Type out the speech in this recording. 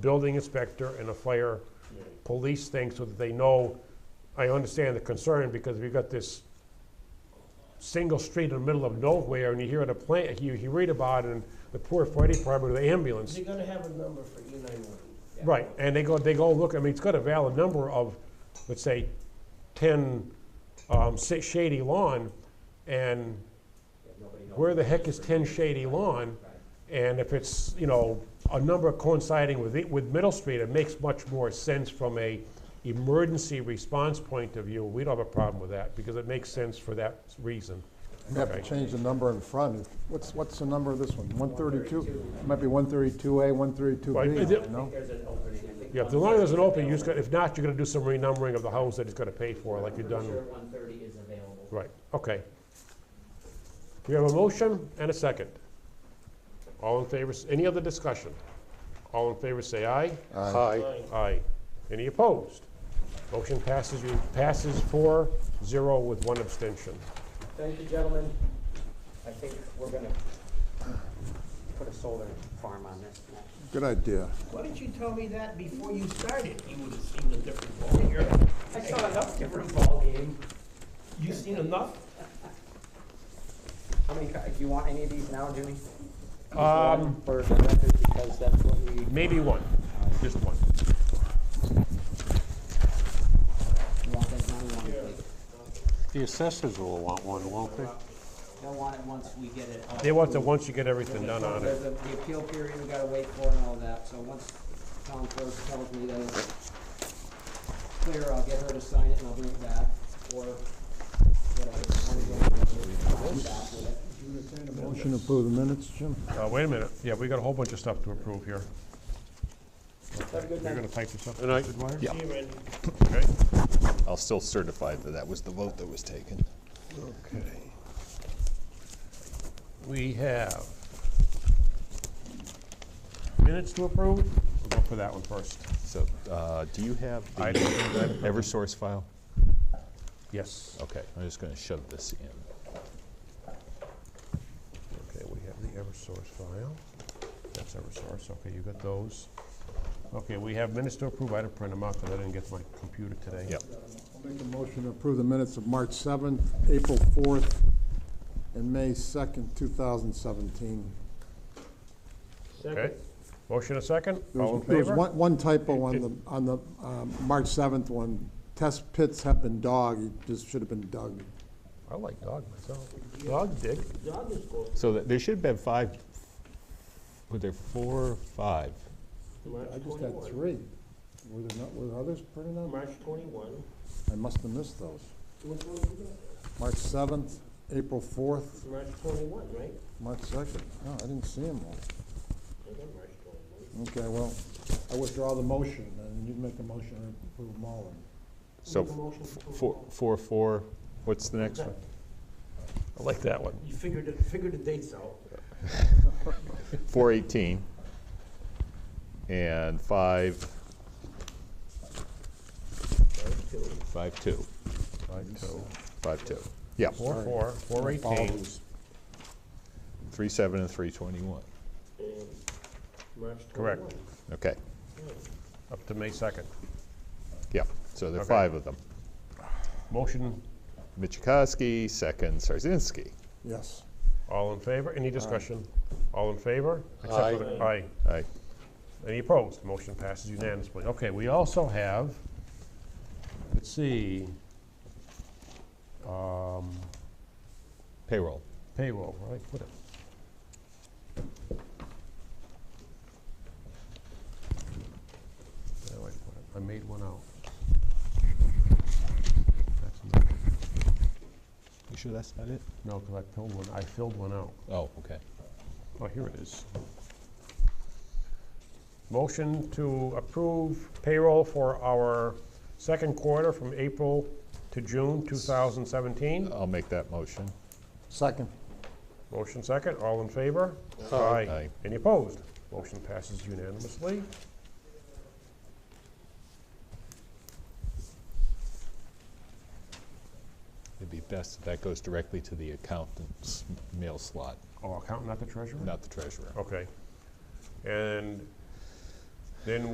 building inspector and a fire police thing so that they know, I understand the concern because we've got this single street in the middle of nowhere and you hear the plan, you, you read about it and the poor fire department or the ambulance. You're gonna have a number for E nine one. Right, and they go, they go look, I mean, it's got a valid number of, let's say, ten, um, si- Shady Lawn, and where the heck is ten Shady Lawn? And if it's, you know, a number coinciding with, it- with Middle Street, it makes much more sense from a emergency response point of view. We don't have a problem with that, because it makes sense for that reason. You have to Okay. change the number in front. What's, what's the number of this one? 132? Might be 132A, Right, is 132B, it- you know? Yeah, if the longer there's an open, you just got, if not, you're gonna do some renumbering of the homes that it's gonna pay for, like you've done. Pretty sure one thirty is available. Right, okay. We have a motion and a second. All in favor, s- any other discussion? All in favor, say aye. Aye. Aye. Any opposed? Motion passes, you, passes four, zero with one abstention. Thank you, gentlemen. I think we're gonna. Put a solar farm on this next. Good idea. Why didn't you tell me that before you started? You would have seen a different ballgame. I saw enough different ballgame. You seen enough? How many, co- do you want any of these now, Jimmy? Um, For the record, because that's what we, Maybe one, just one. you want that money on it. The assessors will want one, won't they? They'll want it once we get it. all They want to, approved. once you get everything done on There's it. a- the appeal period we gotta wait for and all that, so once Tom Clerk tells me that it's clear, I'll get her to sign it and I'll bring it back, or whatever. I'll get it back with it. Motion to approve the minutes, Jim? Uh, wait a minute, yeah, we got a whole bunch of stuff to approve here. Have a good You're night. gonna type this up? Yeah. Okay. I'll still certify that that was the vote that was taken. Okay. We have minutes to approve? We'll go for that one first. So, uh, do you have I the Eversource file? Yes. Okay, I'm just gonna shove this in. Okay, we have the Eversource file. That's Eversource, okay, you got those. Okay, we have minutes to approve, I had to print them out because I didn't get to my computer today. Yep. I'll make a motion to approve the minutes of March 7th, April 4th, and May 2nd, 2017. Okay, motion a second, There all in was- There was favor? one one typo on the, on the um, March 7th one. Test pits have been dug, it just should have been dug. I like dog myself. Dog dig. So that- there should have been five, were there four, or five? I just had three. Were there not, were others printed out? March twenty-one. I must have missed those. March 7th, April 4th, March twenty-one, right? March 2nd. Oh, I didn't see them all. Okay, well, I withdraw the motion, and you make a motion to approve them all. So, f- four, four, four, what's the next one? I like that one. You figured, it- figured the dates out. Four eighteen. And five. Five two. Five, two, Five two. Yeah, four, four, four eighteen, Follows. three seven and three twenty-one. And March Correct. twenty-one. Okay, up to May second. yeah, so there are Okay. five of them. Motion, Michikowski, second Sarzinski. Yes. all in favor, any discussion? All in favor? Except for the- Aye. Aye. Any opposed? Motion passes unanimously. Okay, we also have, let's see, um, Payroll. payroll, right? What it- Where do I put it? I made one out. That's not- You sure that's not it? No, because I filled one, I filled one out. Oh, okay. Oh, here it is. Motion to approve payroll for our second quarter from April to June 2017. I'll make that motion. Second. Motion second, all in favor? Aye. Any opposed? Motion passes unanimously. It'd be best if that goes directly to the accountant's mail slot, Oh, accountant, not the treasurer? not the treasurer. Okay. And then